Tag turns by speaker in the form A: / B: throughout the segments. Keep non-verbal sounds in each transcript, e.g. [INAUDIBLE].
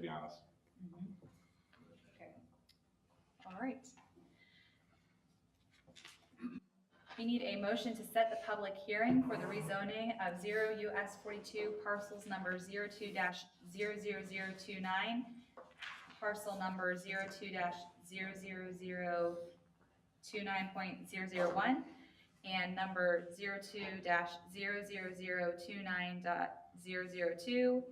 A: be honest.
B: Mhm. Okay. All right. We need a motion to set the public hearing for the rezoning of zero US forty-two parcels number 2 zero zero zero two nine, parcel number 2 zero zero zero two nine point zero zero one, and number 2 zero zero zero two nine dot zero zero two,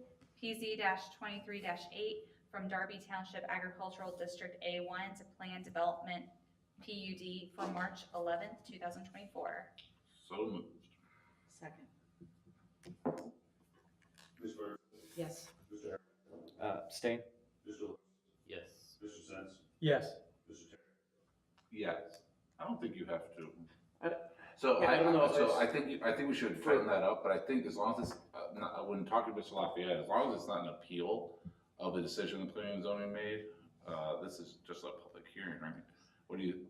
B: PZ twenty-three eight, from Darby Township Agricultural District A1 to Plan Development PUD for March 11th, 2024.
A: So moved.
C: Second.
D: Mr. Burns,
C: Yes.
D: Mr. Harris,
E: Uh, abstain?
D: Mr. Lewis,
E: Yes.
D: Mr. Sens,
E: Yes.
D: Mr. Terry.
A: Yes. I don't think you have to.
E: I-
A: So
E: yeah,
A: I,
E: I don't know if
A: so
E: it's-
A: I think, you- I think we should firm that up, but I think as long as it's, uh, not- when talking to Mr. Lafayette, as long as it's not an appeal of the decision the planning and zoning made, uh, this is just a public hearing, right? What do you,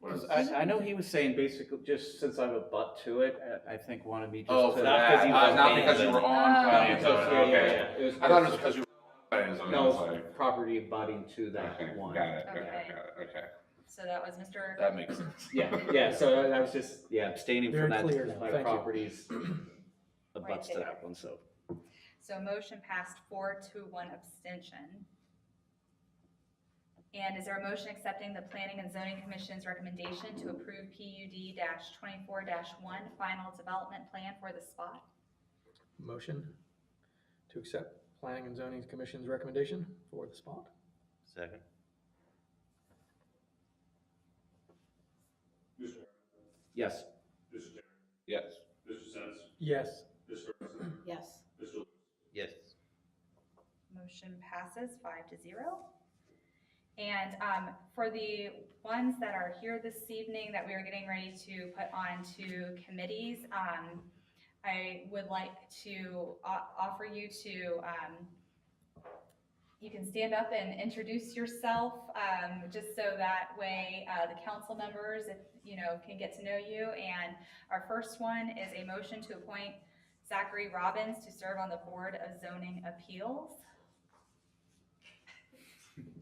A: what is?
E: I, I know he was saying basically, just since I'm a butt to it, uh, I, I think wanted me just to.
A: Oh, for
E: not 'cause
A: that,
E: he
A: uh,
E: was
A: not
E: mad,
A: because you
E: but-
A: were
E: [LAUGHS]
B: Oh.
A: on planning and
E: Yeah,
A: zoning,
E: yeah, Ah. yeah,
A: okay.
E: yeah. It was-
A: I thought it was because you were on planning and zoning, I
E: No,
A: was
E: it's
A: like,
E: property abutting to that
A: okay,
E: one.
A: got it, got it,
B: Okay.
A: got it, okay.
B: So that was Mr.
A: That makes sense.
E: Yeah, yeah, so I I was just, yeah, abstaining
F: Very
E: from that,
F: clear,
E: because my
F: thank you.
E: properties abuts to
B: there.
E: that one, so.
B: So motion passed four to one abstention. And is there a motion accepting the Planning and Zoning Commission's recommendation to approve PUD twenty-four one final development plan for the spot?
F: Motion to accept Planning and Zoning Commission's recommendation for the spot.
E: Second.
D: Mr. Harris,
E: Yes.
D: Mr. Terry,
A: Yes.
D: Mr. Sens,
F: Yes.
D: Mr. Burns,
C: Yes.
D: Mr. Lewis,
E: Yes.
B: Motion passes five to zero. And um, for the ones that are here this evening that we are getting ready to put on to committees, um, I would like to o- offer you to, um, you can stand up and introduce yourself, um, just so that way uh, the council members, if, you know, can get to know you. And our first one is a motion to appoint Zachary Robbins to serve on the Board of Zoning Appeals.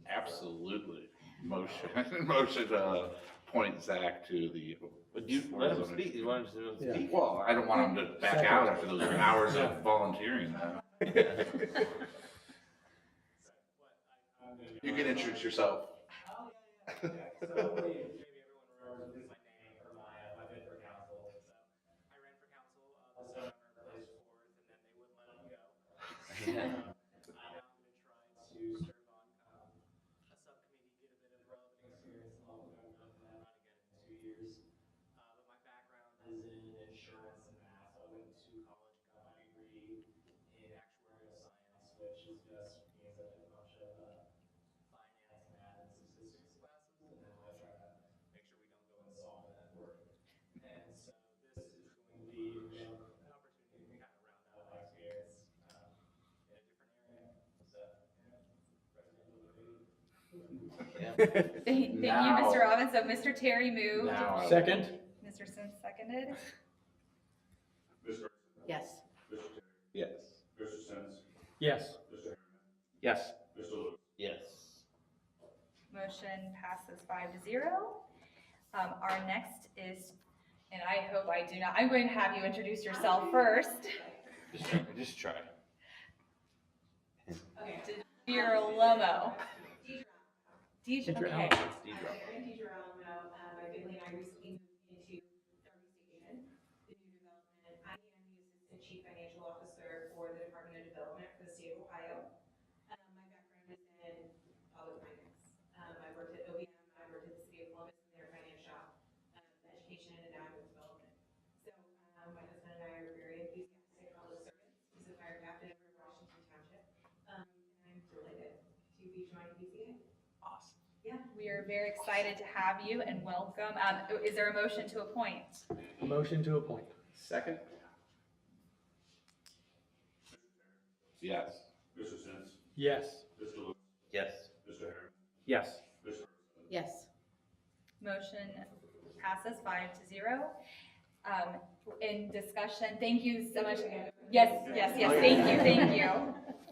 A: Absolutely. Motion, [LAUGHS] motion to point Zach to the.
G: But you let him speak, you want him to
F: Yeah.
G: speak?
E: [LAUGHS]
A: Well, I don't want him to back out after those hours of volunteering. You can introduce yourself.
H: Oh, So hopefully maybe everyone remembers my name or my, uh, my bid for council. So I ran for council, uh, this November, placed fourth, and then they wouldn't let me go. Um, I now am gonna try to serve on, um, a subcommittee, get a bit of relevant experience, and I'll go and then run again in two years. Uh, but my background is in insurance and math. I went to college, got my degree in actuarial science, which is just means I did a bunch of, uh, finance, math, and statistics classes, and then I try to make sure we don't go and solve that work. And so this is going to be an opportunity to kind of round out my experience um, in a different area. So, yeah, recommend a little bit.
B: Thank thank you,
A: Now.
B: Mr. Robbins. So Mr. Terry moved,
A: Now I-
F: Second?
B: Mr. Sims seconded.
D: Mr. Burns,
C: Yes.
D: Mr. Terry,
A: Yes.
D: Mr. Sens,
F: Yes.
D: Mr. Harris,
E: Yes.
D: Mr. Lewis,
G: Yes.
B: Motion passes five to zero. Um, Our next is, and I hope I do not, I'm going to have you introduce yourself first.
G: Just try, just try.
B: Your Lomo. Deidre,
F: Deidre
B: okay.
F: Allen.
G: It's D-drop.
I: Erin DiGiorno, um, my family and I recently moved into Derby Station, the new development. I am the Assistant Chief Financial Officer for the Department of Development for the state of Ohio. Um, my background is in public finance. Um, I worked at OBM, I worked at the city of Columbus in their finance shop, um, education and now I'm with development. So, um, my husband and I are very enthusiastic public servants. He's a fire captain over in Washington Township. Um, and I'm delighted to be joining BCA.
G: Awesome.
B: We are very excited to have you and welcome. Um, Is there a motion to appoint?
F: Motion to appoint.
E: Second?
A: Yes.
D: Mr. Sens,
F: Yes.
D: Mr. Lewis,
G: Yes.
D: Mr. Harris,
E: Yes.
D: Mr.
C: Yes.
B: Motion passes five to zero. Um, In discussion, thank you so much. Yes, yes, yes, thank you, thank you.